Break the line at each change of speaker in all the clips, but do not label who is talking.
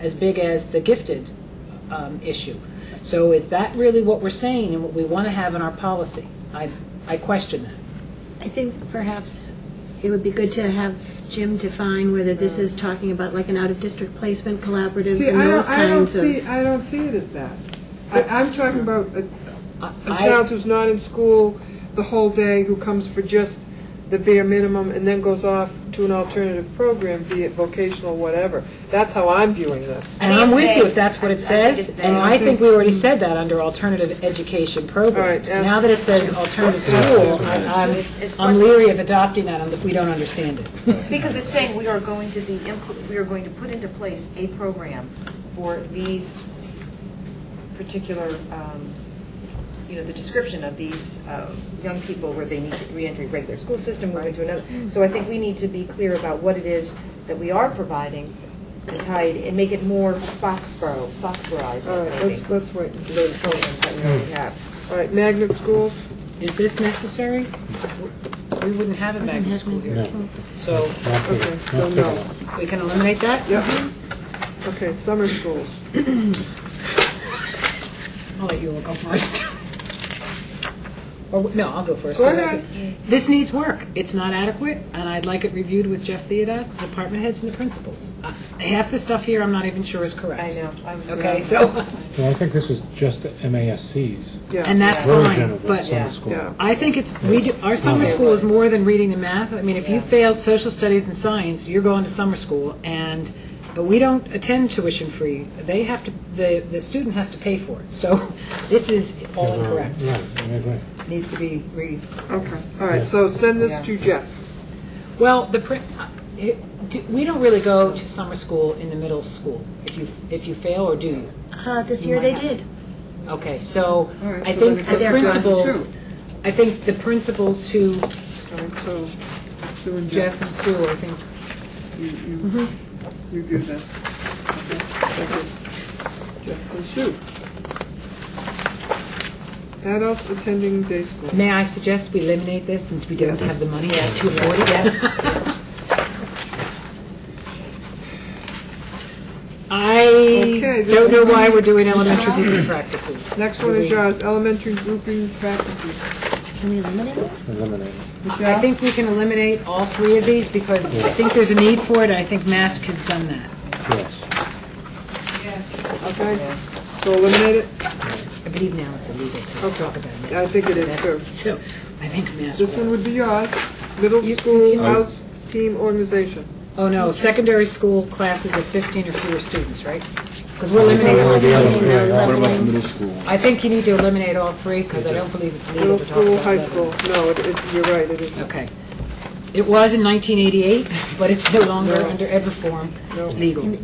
as big as the gifted um, issue. So is that really what we're saying and what we want to have in our policy? I, I question that.
I think perhaps it would be good to have Jim define whether this is talking about like an out-of-district placement collaboratives
See,
and
I
those
don't, I don't
kinds
see,
of.
I don't see it as that. I, I'm talking about a, a
I-
child who's not in school the whole day, who comes for just the bare minimum and then goes off to an alternative program, be it vocational, whatever. That's how I'm viewing this.
And
think
I'm
it's
with you
vague.
if that's what
I-
it
I think
says,
it's
and
vague.
I think we already said that under alternative education programs.
All right, ask-
Now that it says alternative school, I- I'm,
it's
I'm
what-
leery of adopting that if we don't understand it.
Because it's saying we are going to be, impl- we are going to put into place a program for these particular, um, you know, the description of these uh, young people where they need to reenter regular school system, move into another. So I think we need to be clear about what it is that we are providing and tie it, and make it more Foxborough,
All
Foxboroughized,
right, let's,
maybe,
let's wait. and see.
those programs that we
Hmm.
already have.
All right, magnet schools,
Is this necessary? We wouldn't have a magnet school here. So
okay, so no.
we can eliminate that?
Yep. Okay, summer schools.
I'll let you all go first. Or, w- no, I'll go first.
Go
'cause I
ahead.
could- This needs work. It's not adequate, and I'd like it reviewed with Jeff Theodas, the department heads, and the principals. Uh, Half the stuff here, I'm not even sure is correct.
I know, I was.
Okay, so,
Well, I think this is just MASC's
and
Yeah,
that's
version
fine,
of the
but
summer school.
yeah.
I think it's, we do, our summer school is more than reading and math. I mean, if you failed social studies and science, you're going to summer school, and but we don't attend tuition free. They have to, the, the student has to pay for it. So this is all incorrect.
Right, I agree.
Needs to be re,
okay. All right, so send this to Jeff.
well, the, pri- uh, it- do- we don't really go to summer school in the middle school, if you, if you fail, or do you?
Uh, This year they did.
Okay, so
right,
I
so
think
then it
the
goes down to
principals,
two.
I think the principals who,
All right, so Sue and Jeff,
Jeff and Sue, I think,
you, you review this. Okay, thank you. Jeff and Sue. Adults attending day school.
may I suggest we eliminate this since we don't
Yes.
have the money to afford it? I
Okay,
don't know
this-
why we're doing elementary grouping practices.
Next one is uh, yours, elementary grouping practices.
Can we eliminate it?
Eliminate it.
I think we can eliminate all three of these because I think there's a need for it, and I think Mask has done that.
yes.
Okay, so eliminate it?
I believe now it's illegal to
Okay.
talk about it.
I think it is too.
So I think Mask
This one
will.
would be yours, middle school house team organization.
Oh, no, secondary school classes of 15 or fewer students, right? Because we're eliminating all
Eliminate Oh, the other
three.
three at all.
What about the middle school?
I think you need to eliminate all three because I don't believe it's legal
Middle
to talk about
school, high
that.
school, no, it, it, you're right, it isn't.
Okay. It was in 1988, but it's no longer under ed reform legal.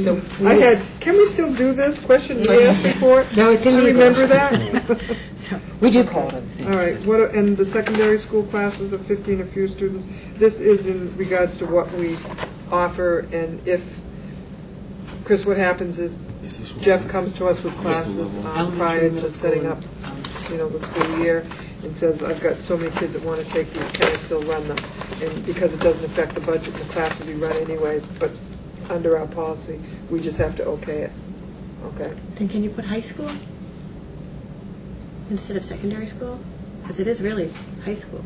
So
I had, can we still do this, question and answer report?
No, it's
I
illegal.
remember that.
so we do call it other
All
things.
right, what, are- and the secondary school classes of 15 or fewer students, this is in regards to what we offer, and if, Chris, what happens is Jeff comes to us with classes um,
Elementary,
prior
middle
to
school,
setting up,
and, um,
you know, the school year, and says, I've got so many kids that want to take these, can I still run them? And because it doesn't affect the budget, the class will be run anyways, but under our policy, we just have to okay it, okay?
Then can you put high school instead of secondary school? Because it is really high school.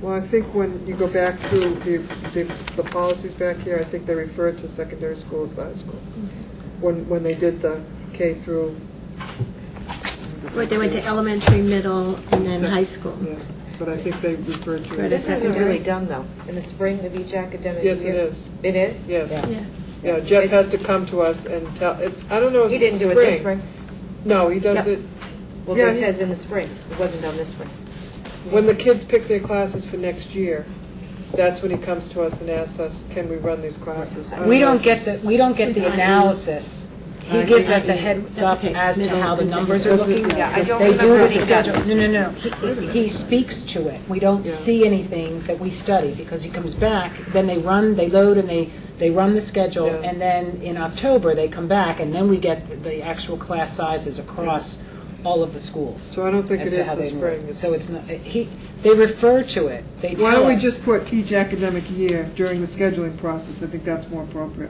Well, I think when you go back through the, the, the policies back here, I think they referred to secondary school as high school. When, when they did the K through,
Or they went to elementary, middle, and then high school.
yeah, but I think they referred to it.
Right.
This isn't really done, though, in the spring of each academic year.
Yes, it is,
It is?
yes.
Yeah.
Yeah, Jeff has to come to us and tell, it's, I don't know if
He
it's
didn't do it this spring.
spring. No, he does
No.
it,
Well,
Yeah,
it
he-
says in the spring. It wasn't done this spring.
when the kids pick their classes for next year, that's when he comes to us and asks us, can we run these classes? Uh, I
We
know.
don't get the, we don't get the analysis. He gives us a heads up
okay.
as to how the
Middle and
numbers are looking.
Yeah, I don't
They do
remember
the
any schedule.
schedule. No, no, no. He- He speaks to it. We don't
Yeah.
see anything that we study because he comes back, then they run, they load and they, they run the schedule.
Yeah.
And then in October, they come back and then we get the- the actual class sizes across all of the schools.
So I don't think
as
it
to
is
how
the
they
spring.
work. So it's not, he, they refer to it. They tell us.
Why don't we just put each academic year during the scheduling process? I think that's more appropriate.